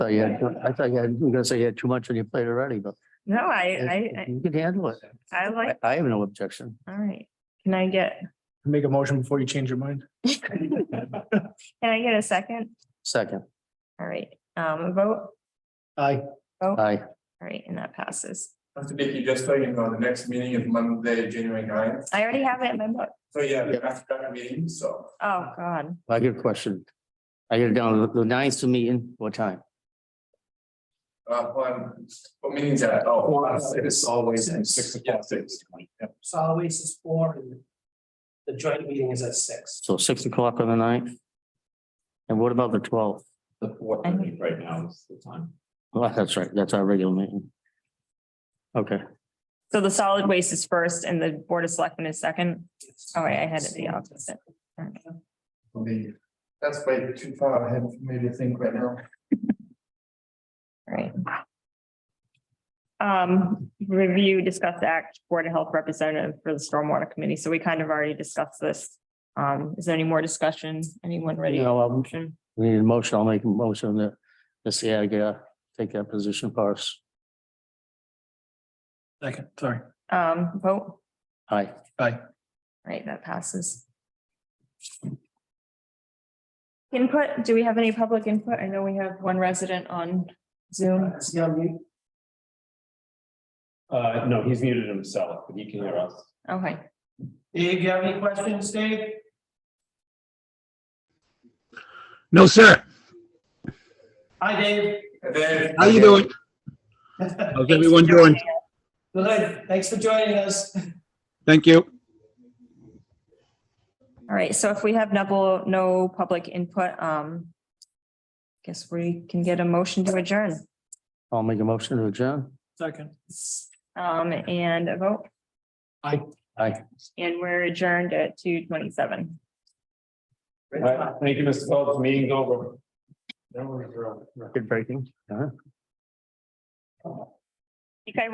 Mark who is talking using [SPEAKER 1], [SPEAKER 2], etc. [SPEAKER 1] thought you had, I thought you had, you were gonna say you had too much on your plate already, but
[SPEAKER 2] No,
[SPEAKER 1] if-
[SPEAKER 2] I,
[SPEAKER 1] if
[SPEAKER 2] I,
[SPEAKER 1] you can handle it.
[SPEAKER 2] I I
[SPEAKER 1] I,
[SPEAKER 2] like,
[SPEAKER 1] I have no objection.
[SPEAKER 2] all right. Can I get,
[SPEAKER 3] Make a motion before you change your mind.
[SPEAKER 2] can I get a second?
[SPEAKER 1] Second,
[SPEAKER 2] All right, um, a vote,
[SPEAKER 3] Aye.
[SPEAKER 2] vote, all
[SPEAKER 1] aye,
[SPEAKER 2] right, and that passes.
[SPEAKER 4] Mr. Dickey, just so you know, the next meeting is Monday, January 9th.
[SPEAKER 2] I already have it in my book.
[SPEAKER 4] So yeah,
[SPEAKER 1] Yep.
[SPEAKER 4] that's that meeting, so
[SPEAKER 2] Oh, God.
[SPEAKER 1] I get a question. I get it down, the- the ninth to meeting, what time?
[SPEAKER 4] uh one, what meetings at? Oh,
[SPEAKER 3] It is always at six
[SPEAKER 4] Yeah,
[SPEAKER 3] o'clock.
[SPEAKER 4] six.
[SPEAKER 5] solid waste is four and the joint meeting is at six.
[SPEAKER 1] So six o'clock on the ninth? And what about the twelfth?
[SPEAKER 6] The fourth, I think, right now is the time.
[SPEAKER 1] Well, that's right, that's our regular meeting. Okay,
[SPEAKER 2] So the solid waste is first and the Board of Selectmen is second. All right, I had it the opposite. All right.
[SPEAKER 4] Believe. That's way too far ahead for me to think right now.
[SPEAKER 2] Right. Um, review, discuss the act, Board of Health representative for the Stormwater Committee. So we kind of already discussed this. Um, is there any more discussion? Anyone ready?
[SPEAKER 1] You know,
[SPEAKER 2] for a
[SPEAKER 1] um,
[SPEAKER 2] motion?
[SPEAKER 1] we need a motion, I'll make a motion that, this yeah, yeah, take that position for us.
[SPEAKER 3] Second, sorry.
[SPEAKER 2] Um, vote,
[SPEAKER 1] Aye,
[SPEAKER 3] Aye.
[SPEAKER 2] right, that passes. Input, do we have any public input? I know we have one resident on Zoom.
[SPEAKER 5] Is he on mute?
[SPEAKER 6] Uh, no, he's muted himself, but he can hear us.
[SPEAKER 2] Okay,
[SPEAKER 5] Dave, do you have any questions, Dave?
[SPEAKER 7] No, sir.
[SPEAKER 5] Hi, Dave.
[SPEAKER 4] And then.
[SPEAKER 7] How you doing? How's everyone doing?
[SPEAKER 5] Good, thanks for joining us.
[SPEAKER 7] Thank you.
[SPEAKER 2] all right. So if we have no, no public input, um, guess we can get a motion to adjourn.
[SPEAKER 1] I'll make a motion to adjourn.
[SPEAKER 3] Second.
[SPEAKER 2] Um, and a vote.
[SPEAKER 3] Aye.
[SPEAKER 1] Aye.
[SPEAKER 2] And we're adjourned at two twenty-seven.
[SPEAKER 6] All right, thank you, Mr. Phelps, meeting's over.
[SPEAKER 1] Good breaking. Uh-huh.
[SPEAKER 2] Okay,